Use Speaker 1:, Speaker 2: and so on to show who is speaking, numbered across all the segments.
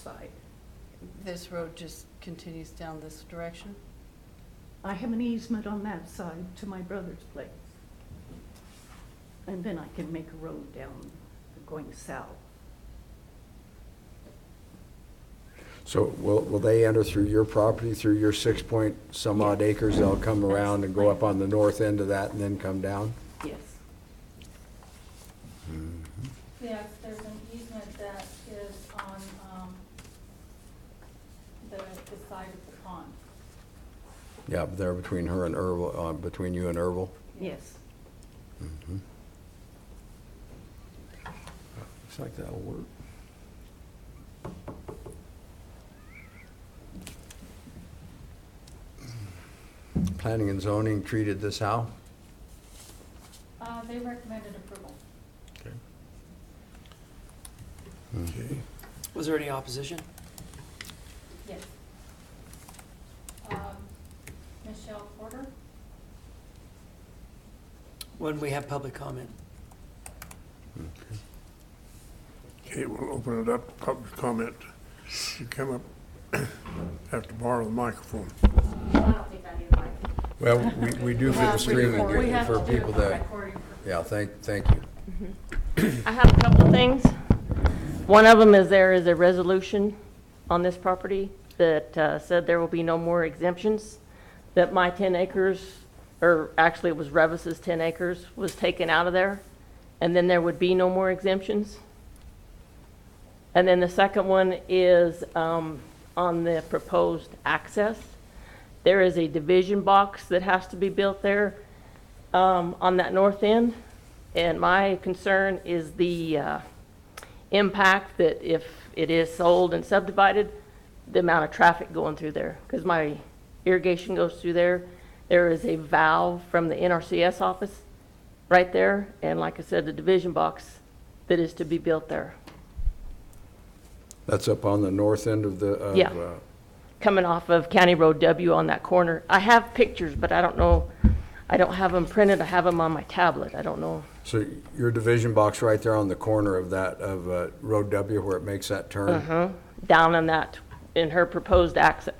Speaker 1: side.
Speaker 2: This road just continues down this direction?
Speaker 1: I have an easement on that side to my brother's place. And then I can make a road down going south.
Speaker 3: So will, will they enter through your property, through your six point some odd acres? They'll come around and go up on the north end of that and then come down?
Speaker 1: Yes.
Speaker 4: Yes, there's an easement that is on, um, the, the side of the pond.
Speaker 3: Yeah, there between her and Erbil, uh, between you and Mm-hmm. Erbil?
Speaker 1: Yes.
Speaker 3: Looks like that'll work. Planning and zoning treated this how?
Speaker 4: Uh, they recommended approval.
Speaker 5: Was there any opposition?
Speaker 4: Yes. Um, Michelle Porter,
Speaker 5: When we have public comment?
Speaker 6: Okay, we'll open it up, to public comment. You come up, have to borrow the microphone.
Speaker 7: I don't think I need a mic.
Speaker 3: Well, we, we do for the streaming,
Speaker 2: we
Speaker 3: we-
Speaker 2: have
Speaker 3: for people to,
Speaker 4: recording for
Speaker 3: yeah, thank, thank you.
Speaker 7: I have a couple things. One of them is there is a resolution on this property that uh, said there will be no more exemptions, that my 10 acres, or actually it was Revis's 10 acres, was taken out of there, and then there would be no more exemptions. And then the second one is um, on the proposed access. There is a division box that has to be built there um, on that north end. And my concern is the uh, impact that if it is sold and subdivided, the amount of traffic going through there. Because my irrigation goes through there. There is a valve from the NRCS office right there. And like I said, the division box that is to be built there,
Speaker 3: That's up on the north end of the, of,
Speaker 7: Yeah.
Speaker 3: uh,
Speaker 7: coming off of County Road W on that corner. I have pictures, but I don't know, I don't have them printed. I have them on my tablet. I don't know.
Speaker 3: So your division box right there on the corner of that, of uh, Road W where it makes that
Speaker 7: Mm-hmm.
Speaker 3: turn?
Speaker 7: down on that, in her proposed access.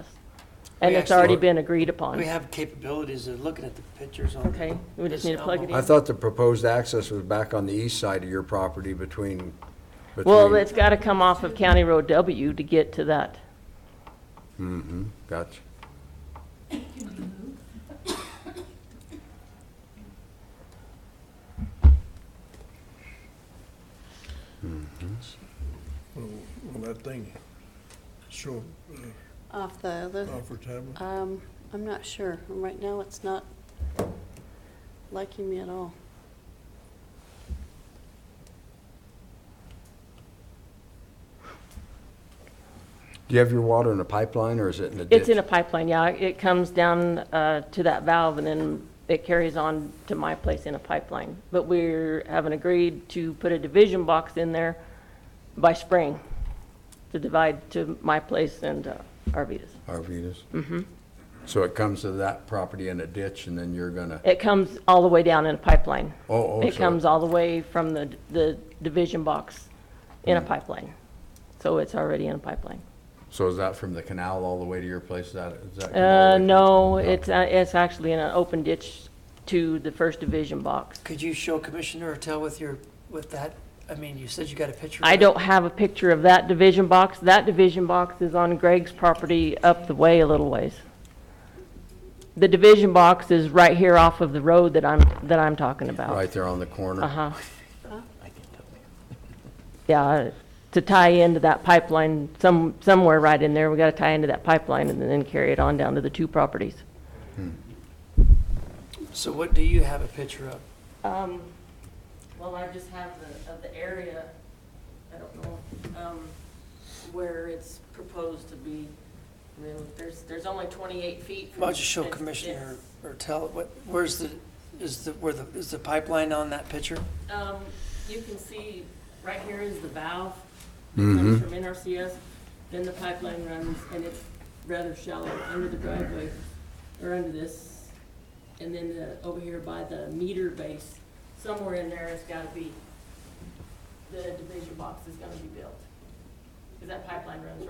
Speaker 7: And
Speaker 5: We
Speaker 7: it's already
Speaker 5: actually-
Speaker 7: been agreed
Speaker 5: We
Speaker 7: upon.
Speaker 5: have capabilities of looking at the pictures on.
Speaker 7: Okay, we just need to plug
Speaker 5: this
Speaker 7: it in.
Speaker 3: I
Speaker 5: album.
Speaker 3: thought the proposed access was back on the east side of your property between,
Speaker 7: Well,
Speaker 3: between,
Speaker 7: it's gotta come off of County Road W to get to that.
Speaker 3: Mm-hmm, gotcha.
Speaker 6: Will will that thing show
Speaker 2: Off the other,
Speaker 6: up off our tablet?
Speaker 2: um, I'm not sure. Right now, it's not liking me at all.
Speaker 3: Do you have your water in a pipeline or is it in a ditch?
Speaker 7: It's in a pipeline, yeah. It comes down, uh, to that valve and then it carries on to my place in a pipeline. But we're, having agreed to put a division box in there by spring to divide to my place and uh, Arvidas.
Speaker 3: Arvidas? Mm-hmm. So it comes to that property in a ditch and then you're gonna,
Speaker 7: It comes all the way down in a pipeline.
Speaker 3: oh, oh.
Speaker 7: It
Speaker 3: so-
Speaker 7: comes all the way from the, the division box in
Speaker 3: Hmm.
Speaker 7: a pipeline. So it's already in a pipeline.
Speaker 3: So is that from the canal all the way to your place? Is that, is that?
Speaker 7: Uh, no, it's, uh, it's actually in an open ditch to the first division box.
Speaker 5: Could you show Commissioner Ortell with your, with that? I mean, you said you got a picture.
Speaker 7: I
Speaker 5: of it.
Speaker 7: don't have a picture of that division box. That division box is on Greg's property up the way a little ways. The division box is right here off of the road that I'm, that I'm talking about.
Speaker 3: Right there on the corner?
Speaker 7: Uh-huh. Yeah, to tie into that pipeline, some, somewhere right in there, we gotta tie into that pipeline and then carry it on down to the two properties.
Speaker 5: So what do you have a picture of?
Speaker 7: Um, well, I just have the, of the area, I don't know, um, where it's proposed to be. I mean, there's, there's only twenty-eight feet. from-
Speaker 5: Why don't you show
Speaker 7: it's-
Speaker 5: Commissioner
Speaker 7: it's-
Speaker 5: Ortell, what, where's the, is the, where the, is the pipeline on that picture?
Speaker 7: Um, you can see, right here is the valve, comes from NRCS, then the pipeline runs, and it's rather shallow under the driveway, or under this, and then the, over here by the meter base, somewhere in there it's gotta be, the division box is gonna be built. Cause that pipeline runs right